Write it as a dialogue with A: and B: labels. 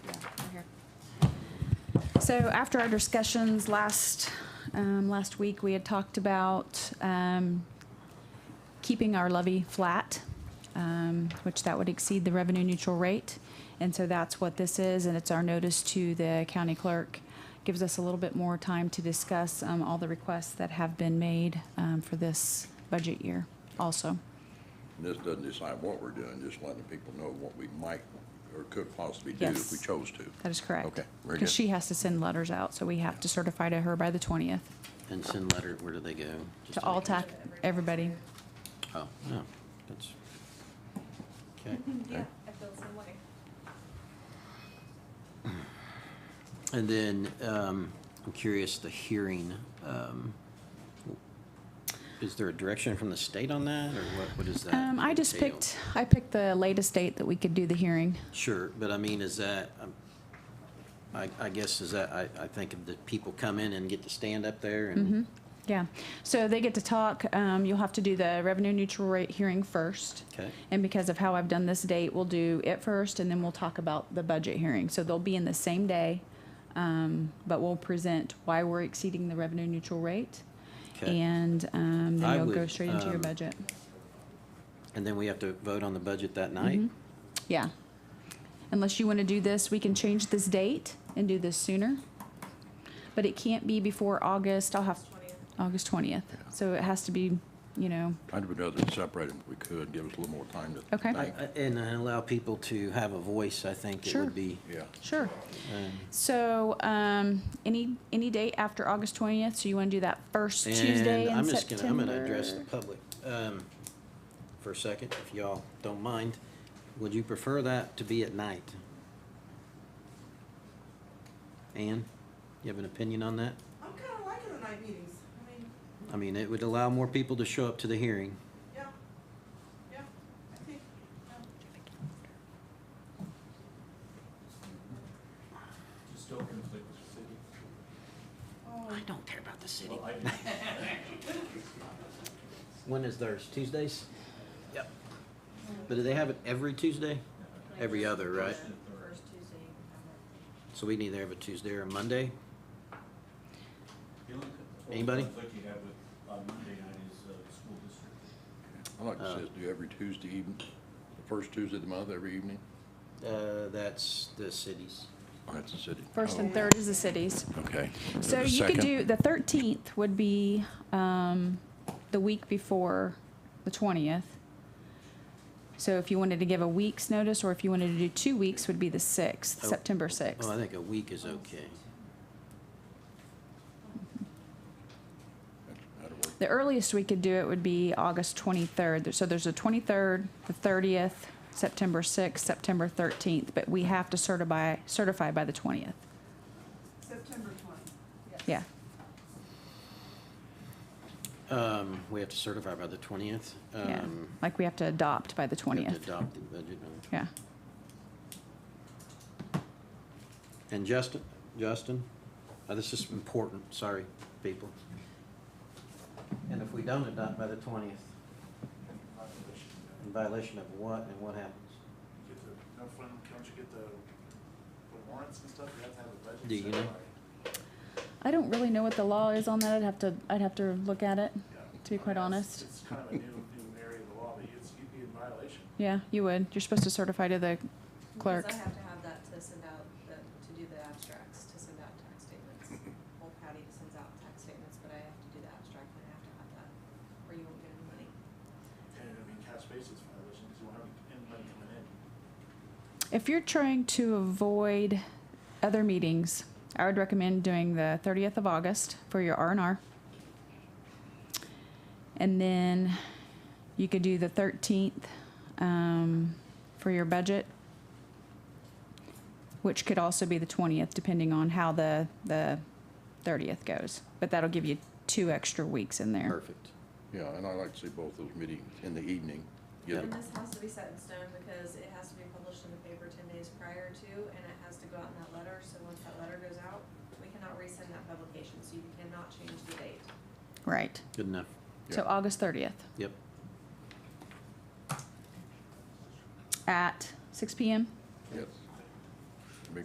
A: So after our discussions last, um, last week, we had talked about, um, keeping our levy flat, um, which that would exceed the revenue neutral rate. And so that's what this is, and it's our notice to the county clerk. Gives us a little bit more time to discuss, um, all the requests that have been made, um, for this budget year also.
B: And this doesn't decide what we're doing, just letting people know what we might or could possibly do if we
A: Yes.
B: chose to.
A: That is correct.
B: Okay, very good.
A: Because she has to send letters out, so we have to certify to her by the twentieth,
C: And send letter, where do they go? Just
A: to all
C: make sure-
A: tax, everybody.
C: Oh, no, that's, okay.
D: Yeah, I feel the same way.
C: And then, um, I'm curious, the hearing, um, is there a direction from the state on that, or what, what is that?
A: Um, I just
C: entail?
A: picked, I picked the latest date that we could do the hearing.
C: Sure, but I mean, is that, um, I, I guess, is that, I, I think of the people come in and get to stand up there
A: Mm-hmm.
C: and,
A: Yeah, so they get to talk, um, you'll have to do the revenue neutral rate hearing first.
C: okay?
A: And because of how I've done this date, we'll do it first and then we'll talk about the budget hearing. So they'll be in the same day, um, but we'll present why we're exceeding the revenue neutral rate.
C: 'Kay.
A: And, um, then
C: I
A: you'll go
C: would,
A: straight into your
C: um,
A: budget.
C: And then we have to vote on the budget that
A: Mm-hmm.
C: night?
A: Yeah. Unless you want to do this, we can change this date and do this sooner. But it can't be before August, I'll have, August twentieth. So it has to be, you know,
B: I'd rather separate them if we could, give us a little more time to
A: Okay.
B: think.
C: I- I- And allow people to have a voice, I think it
A: Sure.
C: would be.
B: Yeah,
A: sure. So, um, any, any date after August twentieth, so you want to do that first Tuesday
C: And
A: in
C: I'm just gonna, I'm
A: September?
C: gonna address the public, um, for a second, if y'all don't mind. Would you prefer that to be at night? Ann, you have an opinion on that?
E: I'm kind of liking the night meetings. I mean,
C: I mean, it would allow more people to show up to the hearing.
E: yeah, yeah, I think, yeah.
F: Just don't conflict with the city.
E: Oh,
C: don't care about the city.
F: Well, I do.
C: When is theirs? Tuesdays? Yep. But do they have it every Tuesday? Every other, right?
F: First and third.
D: First Tuesday, I'm
C: So we need to have a Tuesday or a Monday?
F: The only co-
C: Anybody?
F: Conflict you have with, on Monday night is, uh, the school district.
B: I like to
C: Uh,
B: say, do every Tuesday evening, the first Tuesday of the month, every evening.
C: Uh, that's the cities.
B: Oh, that's the city.
A: First and
B: Oh,
A: third is the cities.
B: Okay.
A: So
B: the
A: you could
B: second-
A: do, the thirteenth would be, um, the week before the twentieth. So if you wanted to give a week's notice, or if you wanted to do two weeks, would be the sixth,
C: Oh.
A: September sixth.
C: Oh, I think a week is okay.
B: That'll work.
A: The earliest we could do it would be August twenty-third, so there's a twenty-third, the thirtieth, September sixth, September thirteenth, but we have to certify, certify by the twentieth,
E: September twenty.
A: yeah.
C: Um, we have to certify by the twentieth. Um,
A: Yeah, like Um, we have to adopt by the twentieth,
C: Adopt the budget. uh,
A: yeah.
C: And Justin, Justin, uh, this is important, sorry, people. And if we don't adopt by the twentieth, in violation of what and what happens?
G: Get the, no, fun, don't you get the, the warrants and stuff, you have to have a budget.
C: Do you
G: set
C: know?
G: by-
A: I don't really know what the law is on that, I'd have to, I'd have to look at it,
G: yeah.
A: to be quite
G: I mean,
A: honest.
G: it's- It's kind of a new, new area of the law, but it's, you'd be in violation.
A: Yeah, you would. You're supposed to certify to the
D: Because
A: clerk.
D: I have to have that to send out, the- to do the abstracts, to send out tax statements. Old Patty sends out tax statements, but I have to do the abstract and I have to have that, or you won't get any money.
G: And I mean, cash basis violation, because you won't have anybody coming in.
A: If you're trying to avoid other meetings, I would recommend doing the 30th of August for your R&R. And then you could do the 13th um, for your budget, which could also be the 20th, depending on how the, the 30th goes. But that'll give you two extra weeks in there.
C: Perfect.
B: Yeah, and I like to see both those meetings in the evening. Get
D: And
B: it-
D: this has to be set in stone because it has to be published in the paper ten days prior to, and it has to go out in that letter, so once that letter goes out, we cannot resend that publication, so you cannot change the date.
A: Right.
C: Good enough.
A: So
B: Yeah.
A: August 30th
C: Yep.
A: at 6 PM?
B: Yes.